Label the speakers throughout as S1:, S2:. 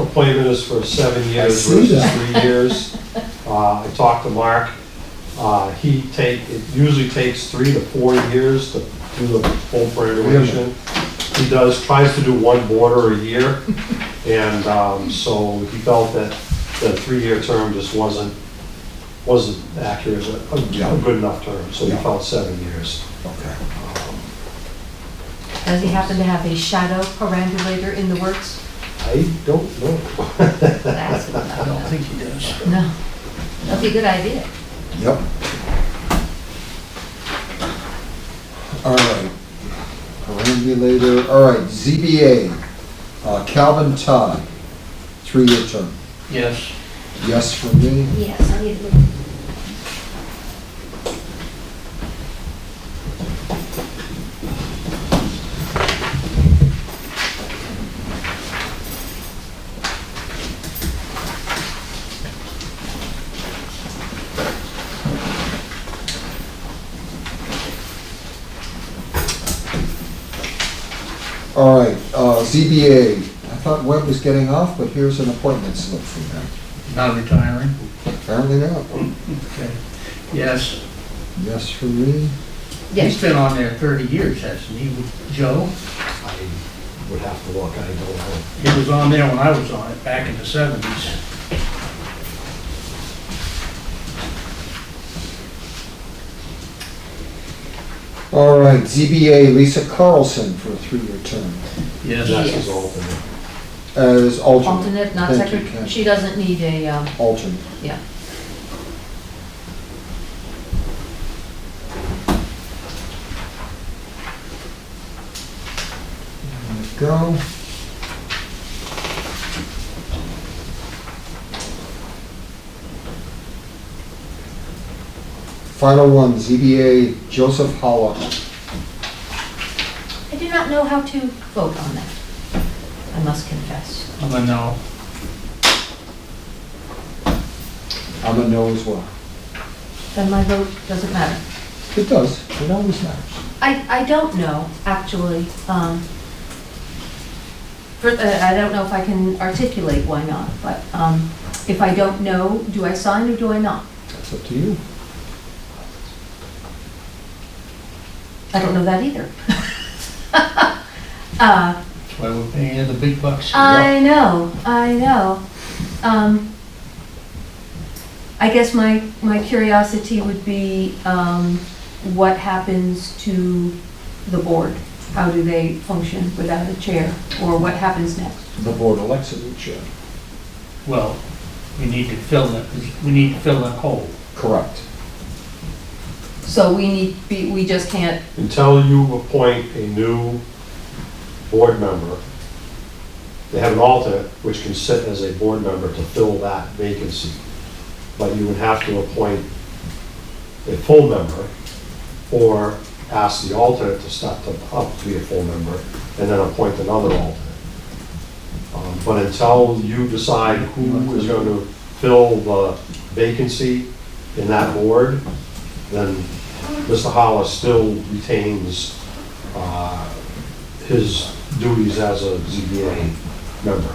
S1: appointment is for seven years
S2: see
S1: versus
S2: that.
S1: three years. Uh, I talked to Mark, uh, he take, it usually takes three to four years to do the full graduation. He does, tries to do one border a year, and, um, so he felt that the three-year term just wasn't, wasn't accurate, a,
S2: Yeah.
S1: a good enough term, so he
S2: Yeah.
S1: felt seven years.
S2: Okay.
S3: Does he happen to have a shadow perambulator in the works?
S1: I don't know.
S3: That's what I
S4: I
S3: thought.
S4: think he does.
S3: No. That'd be a good idea.
S2: Yep. All right. Perambulator, all right, ZBA, uh, Calvin Todd, three-year term.
S4: Yes.
S2: Yes for me,
S3: Yes, I need to look.
S2: All right, uh, ZBA, I thought Webb was getting off, but here's an appointment slip for him.
S4: Not retiring.
S2: Apparently not.
S4: Okay. Yes.
S2: Yes for me.
S3: Yes.
S4: He's been on there 30 years, hasn't he, Joe?
S1: I would have to look, I don't know.
S4: He was on there when I was on it, back in the 70s.
S2: All right, ZBA, Lisa Carlson for a three-year term
S4: Yes.
S1: That's his alternate.
S2: as alternate.
S3: Alternate, not
S2: Thank you,
S3: secretary,
S2: Ken.
S3: she doesn't need a, um,
S2: Alternate.
S3: yeah.
S2: There we go. Final one, ZBA, Joseph Hollow.
S3: I do not know how to vote on that, I must confess.
S4: I'm a no.
S2: I'm a no as well.
S3: Then my vote doesn't matter.
S2: It does, it always matters.
S3: I, I don't know, actually. um, for- uh, I don't know if I can articulate why not, but um, if I don't know, do I sign or do I not?
S2: That's up to you.
S3: I don't know that either. Uh,
S4: That's why we're paying you the big bucks.
S3: I know, I know. Um, I guess my, my curiosity would be um, what happens to the board? How do they function without a chair, or what happens next?
S2: The board elects a new chair.
S4: Well, we need to fill that, we need to fill that hole.
S2: Correct.
S3: So we need, we we just can't,
S1: until you appoint a new board member, they have an alternate which can sit as a board member to fill that vacancy. But you would have to appoint a full member or ask the alternate to step to- up to be a full member and then appoint another alternate. Um, But until you decide who is going to fill the vacancy in that board, then Mr. Hollis still retains uh, his duties as a ZBA member.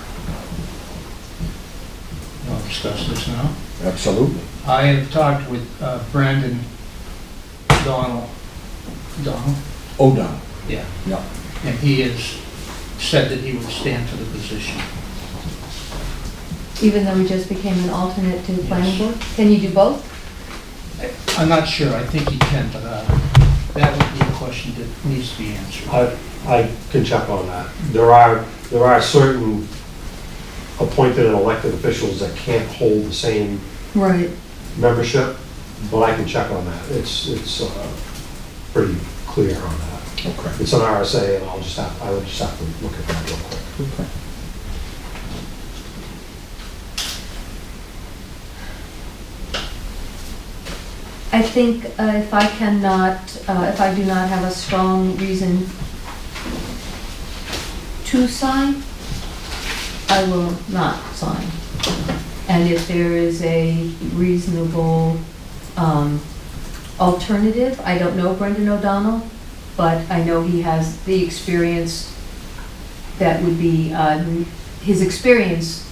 S4: We'll discuss this now.
S2: Absolutely.
S4: I have talked with uh, Brandon Donald. Donald?
S2: Oh no.
S4: Yeah.
S2: Yeah.
S4: And he has said that he would stand for the position.
S3: even though we just became an alternate to the planning board, can you do both?
S4: I'm not sure, I think he can, but uh, that would be a question that needs to be answered.
S1: I, I can check on that. There are, there are certain appointed and elected officials that can't hold the same
S3: Right.
S1: membership, but I can check on that. It's, it's uh, pretty clear on that.
S2: Okay.
S1: It's an RSA, and I'll just have, I would just have to look at that real quick.
S2: Okay.
S3: I think uh, if I cannot, uh, if I do not have a strong reason to sign, I will not sign. And if there is a reasonable um, alternative, I don't know Brendan O'Donnell, but I know he has the experience that would be, uh, his experience